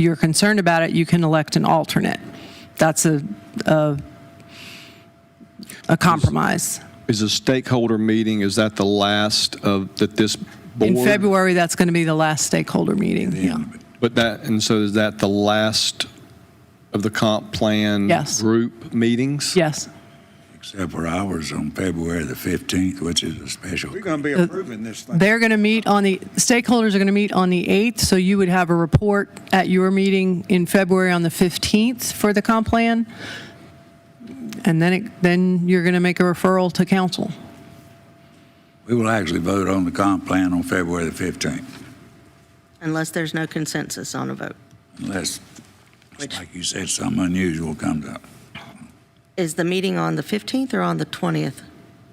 you're concerned about it, you can elect an alternate. That's a, a, a compromise. Is a stakeholder meeting, is that the last of, that this board? In February, that's going to be the last stakeholder meeting. Yeah. But that, and so is that the last of the comp plan? Yes. Group meetings? Yes. Except for ours on February the 15th, which is a special. We're going to be approving this thing. They're going to meet on the, stakeholders are going to meet on the 8th, so you would have a report at your meeting in February on the 15th for the comp plan. And then, it then you're going to make a referral to council. We will actually vote on the comp plan on February the 15th, unless there's no consensus on a vote. unless, Which- like you said, something unusual comes up. Is the meeting on the 15th or on the 20th?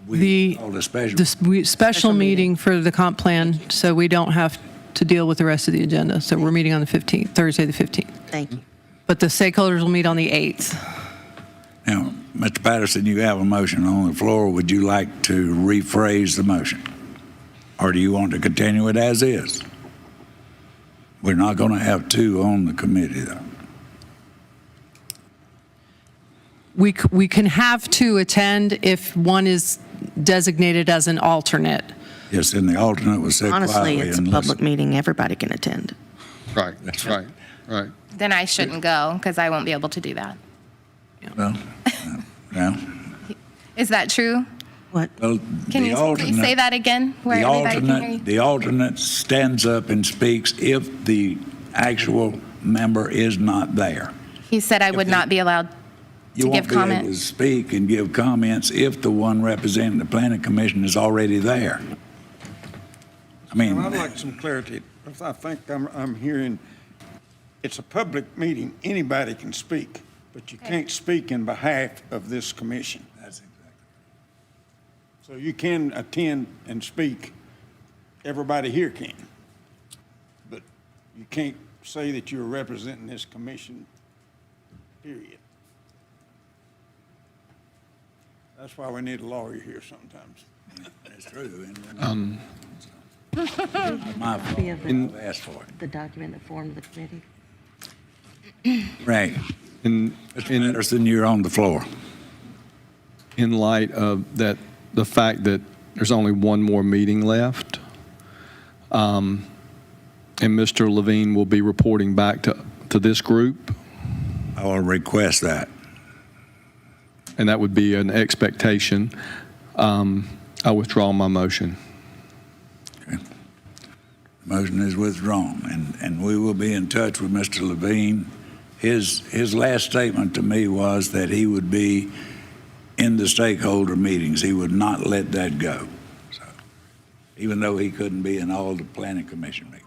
The- We called a special. The s- we- special Special meeting. meeting for the comp plan, so we don't have to deal with the rest of the agenda. So we're meeting on the 15th, Thursday, the 15th. Thank you. But the stakeholders will meet on the 8th. Now, Mr. Patterson, you have a motion on the floor. Would you like to rephrase the motion? Or do you want to continue it as is? We're not going to have two on the committee, though. We, c- we can have two attend if one is designated as an alternate. Yes, and the alternate was said quietly. Honestly, it's a and public listen. meeting, everybody can attend. Right, that's right, right. Then I shouldn't go because I won't be able to do that. Well, Well, Is that true? What? well, Can the you please alternate- say that again? Where The everybody can hear alternate, you? the alternate stands up and speaks if the actual member is not there. He said I would not be allowed to You give won't be able to comment. speak and give comments if the one representing the planning commission is already there. I mean, I'd like some clarity, because I think I'm, I'm hearing, it's a public meeting, anybody can speak, but you can't speak in behalf of this commission. that's exactly- So you can attend and speak, everybody here can. But you can't say that you're representing this commission, period. That's why we need a lawyer here sometimes. that's true. and- My fault, I've asked for it. The document that formed the committee? Right. In, Mr. in, Patterson, you're on the floor. in light of that, the fact that there's only one more meeting left, um, and Mr. Levine will be reporting back to, to this group, I will request that. and that would be an expectation, um, I withdraw my motion. Motion is withdrawn, and, and we will be in touch with Mr. Levine. His, his last statement to me was that he would be in the stakeholder meetings. He would not let that go. So, Even though he couldn't be in all the planning commission meetings.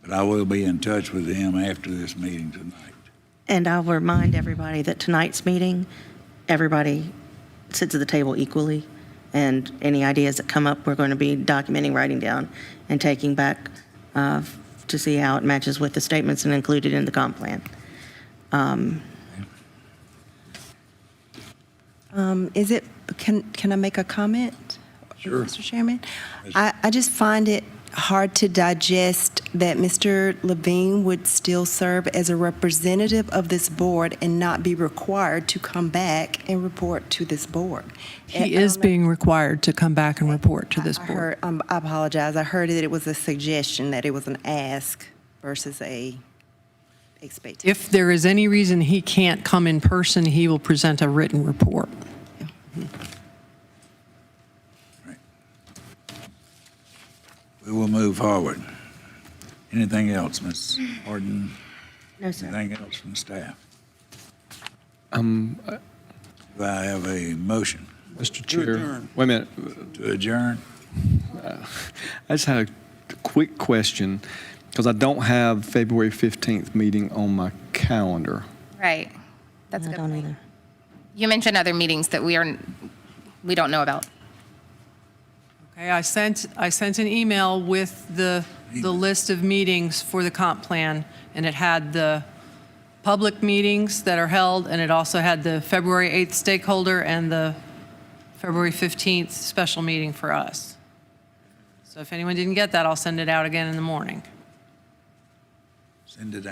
But I will be in touch with him after this meeting tonight. And I'll remind everybody that tonight's meeting, everybody sits at the table equally, and any ideas that come up, we're going to be documenting, writing down, and taking back uh, to see how it matches with the statements and included in the comp plan. Is it, can, can I make a comment? Sure. Mr. Chairman? I, I just find it hard to digest that Mr. Levine would still serve as a representative of this board and not be required to come back and report to this board. And I He is don't know- being required to come back and report to this I board. heard- um, I apologize. I heard that it was a suggestion, that it was an ask versus a expectation. If there is any reason he can't come in person, he will present a written report. We will move forward. Anything else, Ms. Harden? No, sir. Anything else from staff? Do I have a motion Mr. Chair, adjourn. wait a minute, to adjourn? I just had a quick question, because I don't have February 15th meeting on my calendar. Right. That's a I good don't point. either. You mentioned other meetings that we are, we don't know about. Okay, I sent, I sent an email with the, the list of meetings for the comp plan, and it had the public meetings that are held, and it also had the February 8th stakeholder and the February 15th special meeting for us. So if anyone didn't get that, I'll send it out again in the morning. Send it out.